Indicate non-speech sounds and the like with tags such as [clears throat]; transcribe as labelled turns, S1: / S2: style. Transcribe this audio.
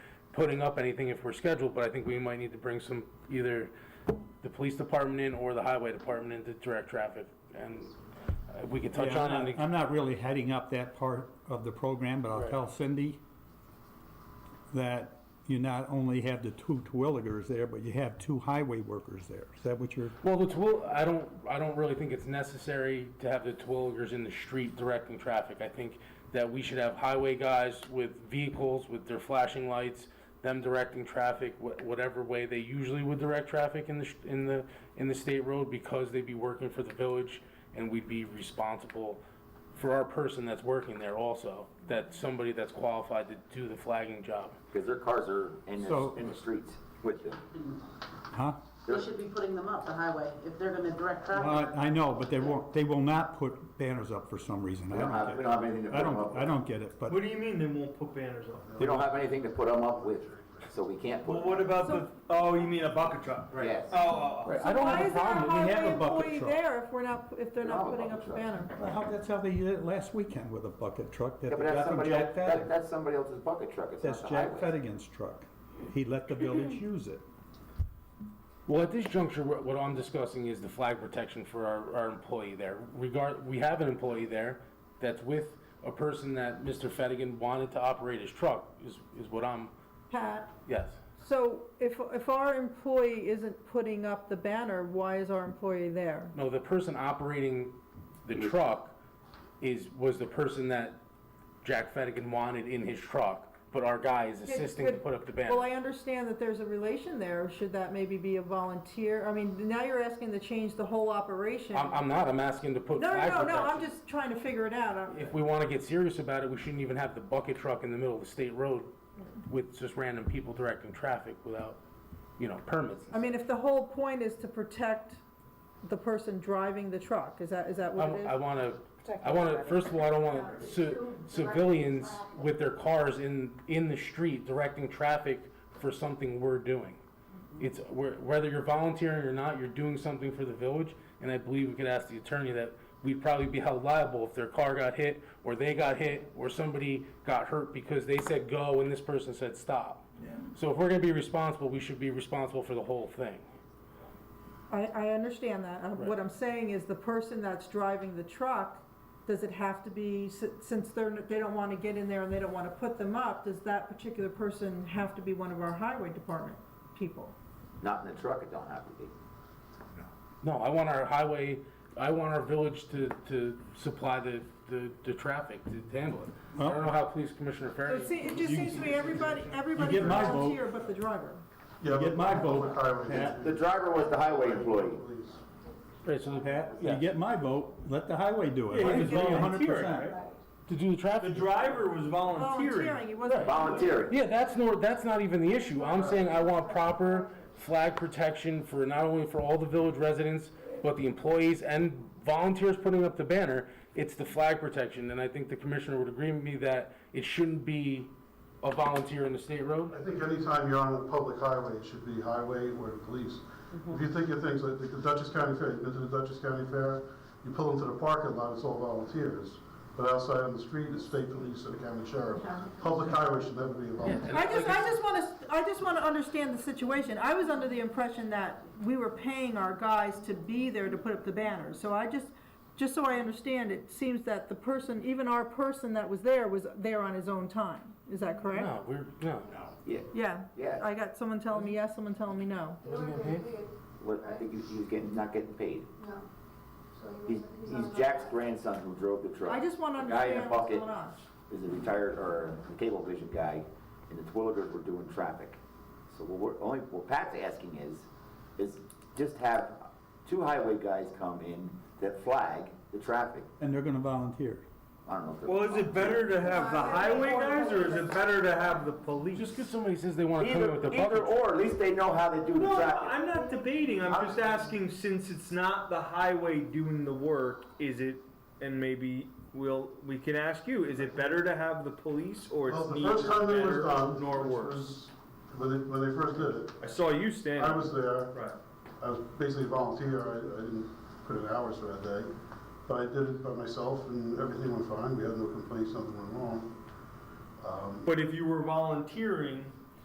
S1: putting up anything if we're scheduled, but I think we might need to bring some, either the police department in or the highway department in to direct traffic. And uh, we could touch
S2: Yeah,
S1: on
S2: I'm
S1: it.
S2: not- I'm not really heading up that part of the program, but I'll
S1: Right.
S2: tell Cindy that you not only have the two Twilligers there, but you have two highway workers there. Is that what you're,
S1: Well, the twill, I don't, I don't really think it's necessary to have the twilligers in the street directing traffic. I think that we should have highway guys with vehicles, with their flashing lights, them directing traffic, wh- whatever way they usually would direct traffic in the, sh- in the, in the state road, because they'd be working for the village, and we'd be responsible for our person that's working there also, that somebody that's qualified to do the flagging job.
S3: Because their cars are in
S2: So-
S3: the, in the streets with them.
S2: huh?
S4: They should be putting them up, the highway, if they're gonna direct traffic.
S2: Well, I I know, but they won't, they will not put banners up for some reason. I
S3: We don't have, we don't
S2: don't
S3: have anything to
S2: get it. I
S3: put them up
S2: don't, I
S3: with.
S2: don't get it, but
S5: What do you mean they won't put banners up?
S3: We don't have anything to put them up with, so we can't put.
S5: Well, what about the, oh, you mean a bucket truck, right?
S3: Yes.
S5: Oh, oh, oh.
S3: Right.
S2: I don't have a problem. We have a
S6: So why
S2: bucket
S6: is there
S2: truck.
S6: a highway employee there if we're not, if they're
S3: We
S6: not
S3: don't have a
S6: putting up the
S3: bucket truck.
S6: banner?
S2: Well, how- that's how they did it last weekend with a bucket truck that they
S3: Yeah, but that's
S2: got from
S3: somebody, else-
S2: Jack
S3: that,
S2: Fettig.
S3: that's somebody else's bucket truck, it's
S2: That's
S3: not the
S2: Jack
S3: highway.
S2: Fettigan's truck. He let the
S3: [clears throat]
S2: village use it.
S1: Well, at this juncture, what what I'm discussing is the flag protection for our, our employee there. Regard, we have an employee there that's with a person that Mr. Fettigan wanted to operate his truck, is, is what I'm,
S6: Pat,
S1: yes.
S6: so if, if our employee isn't putting up the banner, why is our employee there?
S1: No, the person operating the truck is, was the person that Jack Fettigan wanted in his truck, but our guy is assisting to put up the
S6: Well,
S1: banner.
S6: I understand that there's a relation there. Should that maybe be a volunteer? I mean, now you're asking to change the whole operation.
S1: I'm, I'm not, I'm asking to put
S6: No, no,
S1: flag
S6: no, no, I'm
S1: protection.
S6: just trying to figure it out. I'm-
S1: If we wanna get serious about it, we shouldn't even have the bucket truck in the middle of the state road with just random people directing traffic without, you know, permits.
S6: I mean, if the whole point is to protect the person driving the truck, is that, is that
S1: I,
S6: what it
S1: I
S6: is?
S1: wanna, I wanna, first of all, I don't want ci- civilians with their cars in, in the street directing traffic for something we're doing.
S6: Mm-hmm.
S1: It's, we're- whether you're volunteering or not, you're doing something for the village, and I believe we could ask the attorney that we'd probably be held liable if their car got hit, or they got hit, or somebody got hurt because they said go and this person said stop. So if we're gonna be responsible, we should be responsible for the whole thing.
S6: I, I understand that. Uh, What I'm saying is the person that's driving the truck, does it have to be, si- since they're, n- they don't want to get in there and they don't want to put them up, does that particular person have to be one of our highway department people?
S3: Not in the truck, it don't have to be.
S1: No, I want our highway, I want our village to, to supply the, the, the traffic to handle it. I don't know how Police Commissioner
S6: So
S1: Ferry.
S6: It se- it just seems to be everybody, everybody
S2: get my vote.
S6: volunteer but the driver.
S7: Yeah,
S2: Get
S7: but-
S2: my vote,
S7: I would-
S2: Pat.
S3: The driver was the highway employee.
S1: Right, so the-
S2: Pat, you
S1: Yeah.
S2: get my vote, let the highway do it. I
S1: he was
S2: agree a hundred
S1: volunteering,
S2: percent.
S1: to do the
S5: The
S1: traffic.
S5: driver was
S6: Volunteering,
S5: volunteering.
S6: he wasn't.
S3: Volunteering.
S1: Yeah, that's nor, that's not even the issue. I'm saying I want proper flag protection for, not only for all the village residents, but the employees and volunteers putting up the banner. It's the flag protection, and I think the commissioner would agree with me that it shouldn't be a volunteer in the state road.
S7: I think anytime you're on a public highway, it should be highway or the police. If you think of things like the Dutchess County Fair, you've been to the Dutchess County Fair, you pull into the parking lot, it's all volunteers. But outside on the street, it's state police and the county sheriff. Public highway should never be
S3: Oh,
S7: a volunteer.
S6: I just, I just want to, I just want to understand the situation. I was under the impression that we were paying our guys to be there to put up the banners. So I just, just so I understand, it seems that the person, even our person that was there, was there on his own time. Is that correct?
S1: No, we're, no.
S3: Yeah,
S6: Yeah.
S3: Yeah.
S6: I got someone telling me yes, someone telling me no.
S3: what, I think he he was getting, not getting paid.
S8: No. So he
S3: He's,
S8: wasn't-
S3: he's
S8: not
S3: Jack's
S8: allowed.
S3: grandson who drove the truck.
S6: I just want to
S3: The guy in
S6: understand
S3: the
S6: what's
S3: bucket
S6: going on.
S3: Is a retired, or a cable vision guy, and the Twilligers were doing traffic. So what we're, only, what Pat's asking is, is just have two highway guys come in that flag the traffic.
S2: And they're gonna volunteer.
S3: I don't know if they're.
S5: Well, is it better to have the highway guys or is it better to have the police?
S1: Just because somebody says they want to come in with a
S3: Either, either
S1: bucket truck.
S3: or, at least they know how they do the
S5: No,
S3: traffic.
S5: I'm not debating, I'm
S3: I'm-
S5: just asking, since it's not the highway doing the work, is it, and maybe we'll, we can ask you, is it better to have the police or
S7: Well,
S5: it's
S7: the
S5: neither
S7: first time it was
S5: better
S7: done,
S5: nor
S7: which
S5: worse?
S7: was, when they, when they first did it,
S5: I saw you
S7: I
S5: standing.
S7: was there.
S5: Right.
S7: I was basically a volunteer, I, I didn't put in hours for that day, but I did it by myself and everything went fine, we had no complaints, nothing went wrong. Um,
S5: But if you were volunteering,